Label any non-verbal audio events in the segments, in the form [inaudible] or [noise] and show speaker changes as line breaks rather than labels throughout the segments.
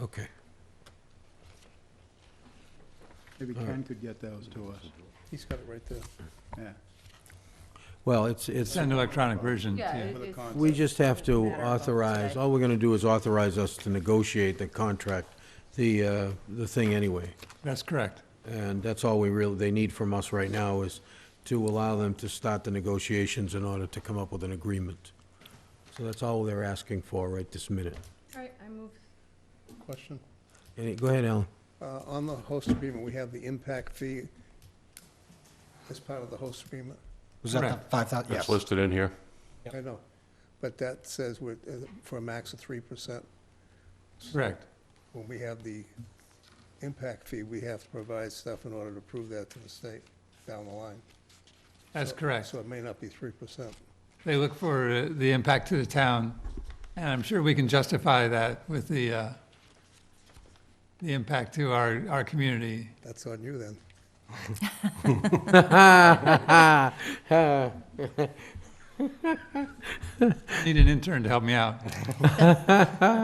Okay.
Maybe
All right.
Ken could get those to us,
He's got it right there.
yeah.
Well, it's, it's,
an electronic version.
Yeah,
For
it-
the
it's-
concept.
we just have to
Matter of
authorize,
today.
all we're gonna do is authorize us to negotiate the contract, the, uh, the thing anyway.
That's correct.
And that's all we really, they need from us right now is to allow them to start the negotiations in order to come up with an agreement. So that's all they're asking for right this minute.
all right, I move,
Question.
Any, go ahead, Alan. [laughs]
Uh, On the host agreement, we have the impact fee as part of the host agreement.
Was that
Correct.
the five thousand?
It's listed in here.
I know. But that says we're, uh, for a max of 3%.
Correct.
When we have the impact fee, we have to provide stuff in order to prove that to the state down the line.
That's
So-
correct.
So it may not be 3%.
They look for uh, the impact to the town, and I'm sure we can justify that with the, uh, the impact to our, our community.
That's on you then.
Need an intern to help me out.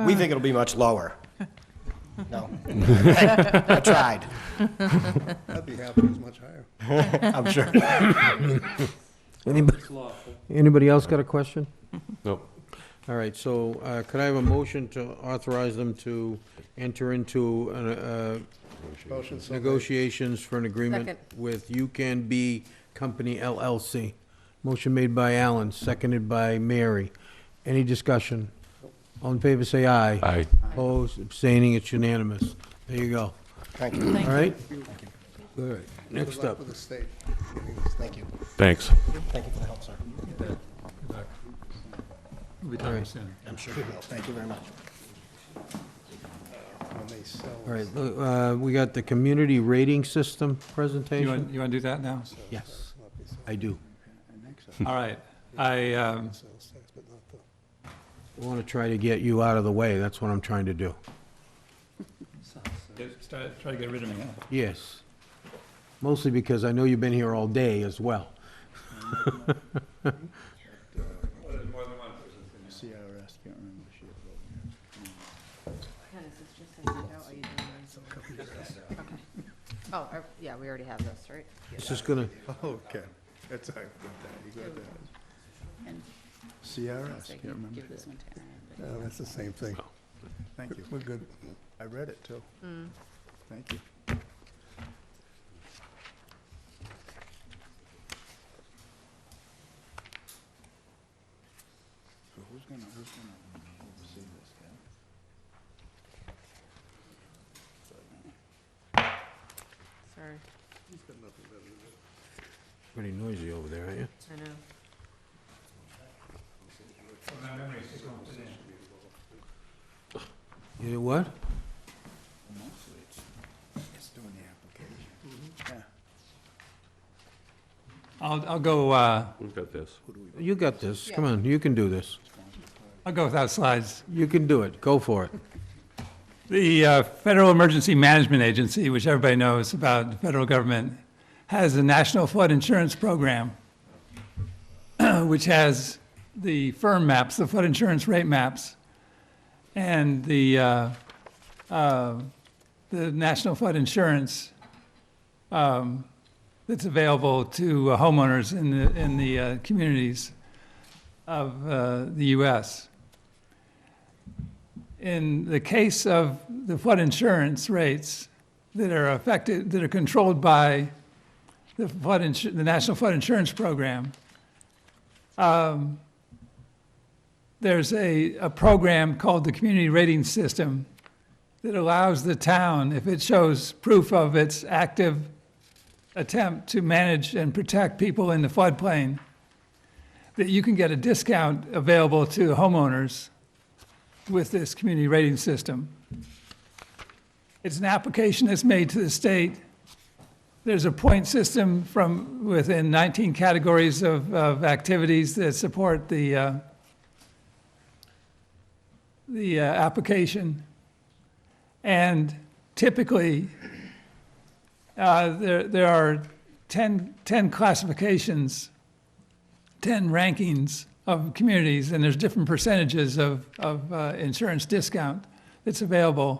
We think it'll be much lower. No. I tried,
I'd be happy it was much higher.
I'm sure.
Anybody, anybody else got a question?
Nope.
All right, so uh, could I have a motion to authorize them to enter into uh,
Motion so
uh,
made.
negotiations for an agreement
Second.
with You Can Be Company LLC? Motion made by Alan, seconded by Mary. Any discussion? All in favor, say aye.
Aye.
Opposed, abstaining, it's unanimous. There you go.
Thank you,
All right? All right, next
Good luck
up.
with the state.
thank you.
Thanks.
Thank you for the help, sir.
We'll be talking soon.
I'm sure you will. Thank you very much.
When they sell.
All right, uh, we got the community rating system
You
presentation?
want, you want to do that now?
Yes, I do.
All right. I, um,
sales tax, but not the.
I want to try to get you out of the way, that's what I'm trying to do.
get- start- try to get rid of me. huh?
Yes. Mostly because I know you've been here all day as well.
CRS, can't remember the shit.
Ken, is this just a handout, are you doing this? Okay. Oh, uh, yeah, we already have this, right?
This is gonna,
[laughs] Okay, that's, I got that, you got that.
And
CRS,
so I
can't
can
remember. Uh,
give this one to Aaron. but-
No, that's the same thing.
Thank you.
We're good.
I read it too.
Mm.
Thank you. So who's gonna, who's gonna oversee this, Ken?
Sorry,
pretty noisy over there, aren't you?
I know.
You did what?
Mostly it's, it's doing the application. Yeah.
I'll, I'll go, uh,
Who's got this?
You got this, come on, you can do this.
I'll go without slides.
You can do it, go for it.
The uh, Federal Emergency Management Agency, which everybody knows about the federal government, has a National Flood Insurance Program, [clears throat] which has the firm maps, the flood insurance rate maps, and the, uh, uh, the National Flood Insurance um, that's available to uh, homeowners in the, in the uh, communities of uh, the U.S in the case of the flood insurance rates that are affected, that are controlled by the flood, insu- the National Flood Insurance Program, um, there's a, a program called the Community Rating System that allows the town, if it shows proof of its active attempt to manage and protect people in the floodplain, that you can get a discount available to homeowners with this community rating system. It's an application that's made to the state. There's a point system from within 19 categories of, of activities that support the, uh, the uh, application. And typically, uh, there, there are 10, 10 classifications, 10 rankings of communities, and there's different percentages of, of uh, insurance discount that's available